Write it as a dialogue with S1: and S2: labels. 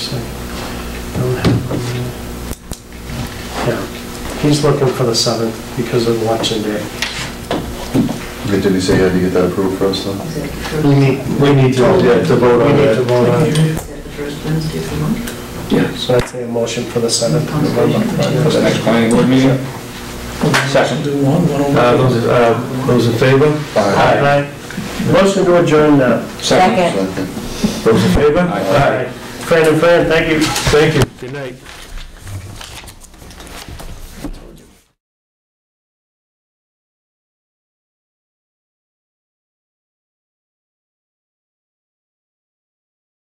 S1: Yeah, he's looking for the 7th because of election day.
S2: Did he say you had to get that approved first though?
S1: We need,
S3: We need to, yeah, to vote
S1: we
S3: on
S1: need to
S3: that.
S1: vote on it.
S4: the first Wednesday of the month?
S1: So I'd say a motion for the 7th of November.
S5: For the next planning board meeting? Second.
S3: Uh, those, uh, those in favor?
S1: Aye. Motion to adjourn now.
S5: Second.
S2: Second.
S3: Those in favor?
S5: Aye.
S1: Fran and Fran, thank you.
S3: Thank you. Good night.